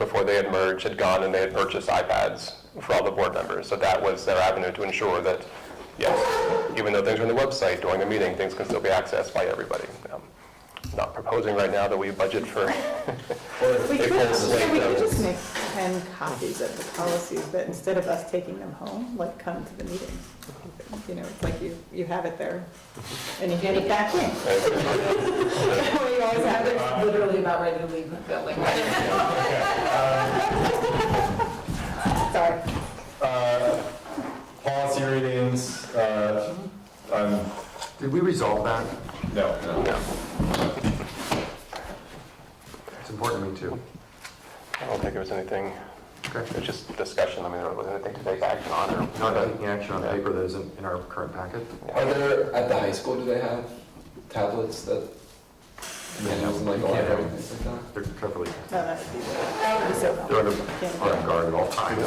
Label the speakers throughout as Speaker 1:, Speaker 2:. Speaker 1: they had merged, had gone and they had purchased iPads for all the board members. So that was their avenue to ensure that, yes, even though things are on the website during the meeting, things can still be accessed by everybody. Um, Not proposing right now that we budget for
Speaker 2: We
Speaker 1: They
Speaker 2: could,
Speaker 1: pull slate
Speaker 2: yeah, we
Speaker 1: notes.
Speaker 2: could just make ten copies of the policies, but instead of us taking them home, like come to the meeting. You know, it's like you, you have it there and you get it back in. You always have it.
Speaker 3: I'm literally about ready to leave the building.
Speaker 2: Sorry.
Speaker 4: Uh, Policy readings, uh, I'm,
Speaker 5: Did we resolve that?
Speaker 4: no, no.
Speaker 5: It's important to me too.
Speaker 1: I don't think there was anything, it
Speaker 5: Okay.
Speaker 1: was just discussion, I mean, there wasn't anything to take action on or.
Speaker 5: Not taking action on paper that isn't in our current packet?
Speaker 6: Are there, at the high school, do they have tablets that, manuals and like a library and things like
Speaker 5: They're carefully,
Speaker 2: No, that would be, that would be so
Speaker 5: they're
Speaker 2: helpful.
Speaker 5: under, on guard at all times.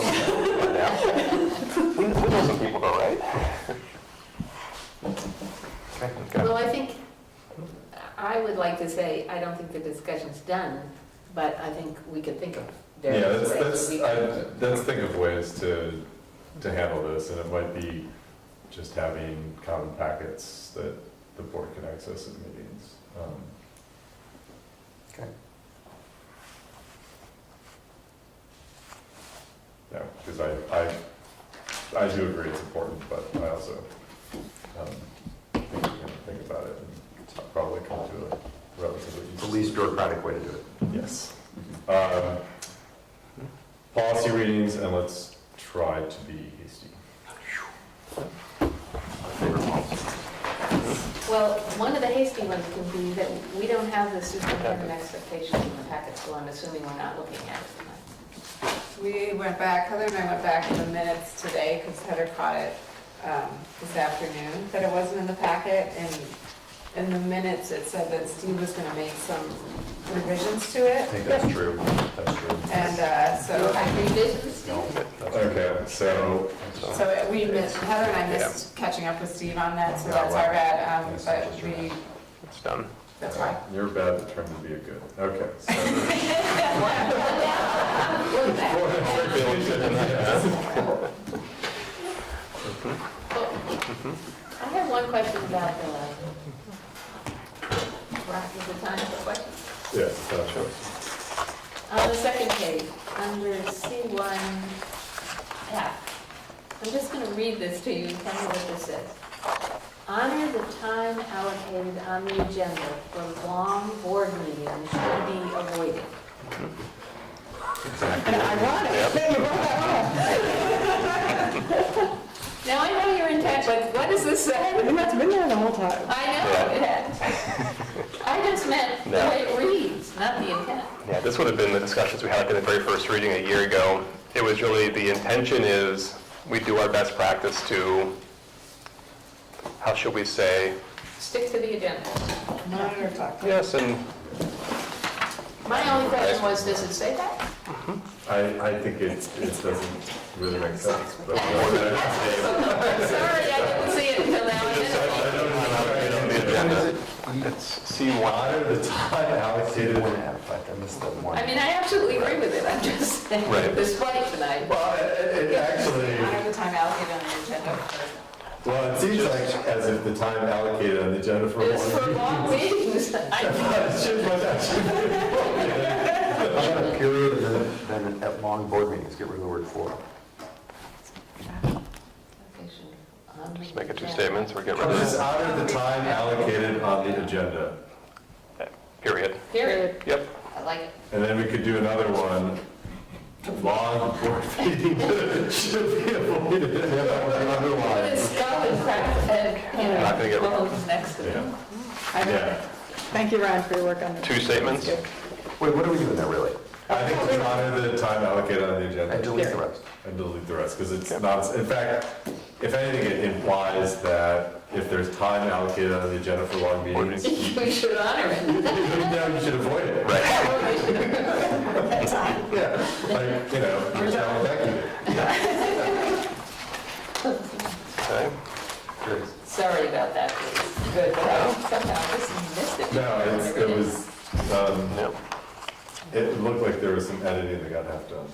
Speaker 1: We we know some people though, right? Okay.
Speaker 3: Well, I think, I would like to say, I don't think the discussion's done, but I think we could think of
Speaker 4: Yeah,
Speaker 3: various
Speaker 4: let's,
Speaker 3: ways.
Speaker 4: let's,
Speaker 3: we
Speaker 4: I-
Speaker 3: could-
Speaker 4: let's think of ways to, to handle this, and it might be just having common packets that the board can access at meetings. Um,
Speaker 5: Okay.
Speaker 4: Yeah, because I, I, I do agree it's important, but I also, um, think we can think about it and probably come to a relatively.
Speaker 5: It's the least bureaucratic way to do it.
Speaker 4: Yes. Um, Policy readings, and let's try to be hasty.
Speaker 3: Well, one of the hasty ones can be that we don't have the superintendent expectations in the packet, so I'm assuming we're not looking at it tonight.
Speaker 7: We went back, Heather and I went back in the minutes today, because Heather caught it um, this afternoon, that it wasn't in the packet, and in the minutes, it said that Steve was gonna make some revisions to
Speaker 4: I
Speaker 7: it,
Speaker 4: think that's true. That's true.
Speaker 7: and uh, so,
Speaker 3: I revision, Steve?
Speaker 4: Okay, so,
Speaker 7: so uh, we missed, Heather and I missed catching up with Steve on that, so that's our bad, um, but we,
Speaker 1: It's done.
Speaker 7: that's why.
Speaker 4: Uh, you're bad at trying to be a good, okay. so-
Speaker 3: Well,
Speaker 4: Mm-hmm.
Speaker 3: I have one question about the, Rock is the time for questions.
Speaker 4: Yeah, that's true.
Speaker 3: On Uh, the second page, under C1F, I'm just going to read this to you and tell me what this says. Honor the time allocated on the agenda for long board meetings should be avoided.
Speaker 2: And ironic.
Speaker 3: Now, I know your intent, but what does this say?
Speaker 2: And that's been there the whole time.
Speaker 3: I know it has. I just meant the
Speaker 1: No.
Speaker 3: way it reads, not the intent.
Speaker 1: Yeah, this would have been the discussions we had like, in the very first reading a year ago. It was really, the intention is, we do our best practice to, how should we say?
Speaker 3: Stick to the agenda.
Speaker 7: Monitor talk.
Speaker 1: Yes, and
Speaker 3: My only question was, does it say that?
Speaker 4: I, I think it, it doesn't really make sense, but. I
Speaker 3: Sorry, I didn't see it until now. I didn't-
Speaker 4: don't know how to get on the agenda.
Speaker 1: it's C1.
Speaker 4: Honor the time allocated
Speaker 5: I missed that one.
Speaker 3: I mean, I absolutely agree with it, I'm just saying,
Speaker 1: Right.
Speaker 3: this fight tonight.
Speaker 4: Well, it, it actually,
Speaker 7: Honor the time allocated on the agenda for
Speaker 4: well, it seems like as if the time allocated on the agenda for.
Speaker 3: It's
Speaker 4: one
Speaker 3: for long meetings. I-
Speaker 4: Should much actually.
Speaker 5: How about a period and then- then at long board meetings, get rid of the word for?
Speaker 1: Just make it two statements, we're getting rid of
Speaker 4: Just
Speaker 1: this,
Speaker 4: honor the time allocated on the agenda.
Speaker 1: period.
Speaker 3: Period,
Speaker 1: Yep,
Speaker 3: I like it.
Speaker 4: And then we could do another one. Long board meeting should be avoided.
Speaker 3: But it's skull and cracked head, you know,
Speaker 1: Not gonna get-
Speaker 3: bones next to it.
Speaker 4: Yeah,
Speaker 2: I-
Speaker 4: yeah.
Speaker 2: Thank you, Ron, for your work on this.
Speaker 1: two statements.
Speaker 5: Wait, what are we doing there really?
Speaker 4: I think we honor the time allocated on the
Speaker 5: I
Speaker 4: agenda
Speaker 5: delete the rest.
Speaker 4: and delete the rest, because it's not, in fact, if anything, it implies that if there's time allocated on the agenda for long meetings, you
Speaker 3: We should honor it.
Speaker 4: know you should avoid it. Right. Yeah, like, you know, you're telling Becky.
Speaker 1: Okay.
Speaker 3: Sorry about that, please. Good, but I somehow just missed it.
Speaker 4: No, it's, it was, um,
Speaker 1: Yep.
Speaker 4: It looked like there was some editing that got half done.